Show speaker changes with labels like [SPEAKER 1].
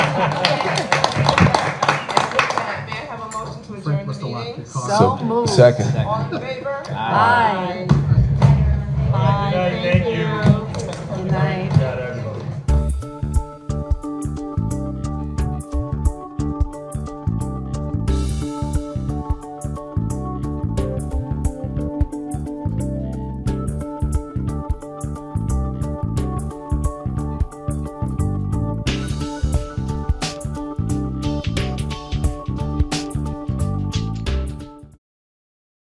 [SPEAKER 1] So moved.
[SPEAKER 2] Second.
[SPEAKER 1] All in favor?
[SPEAKER 3] Aye.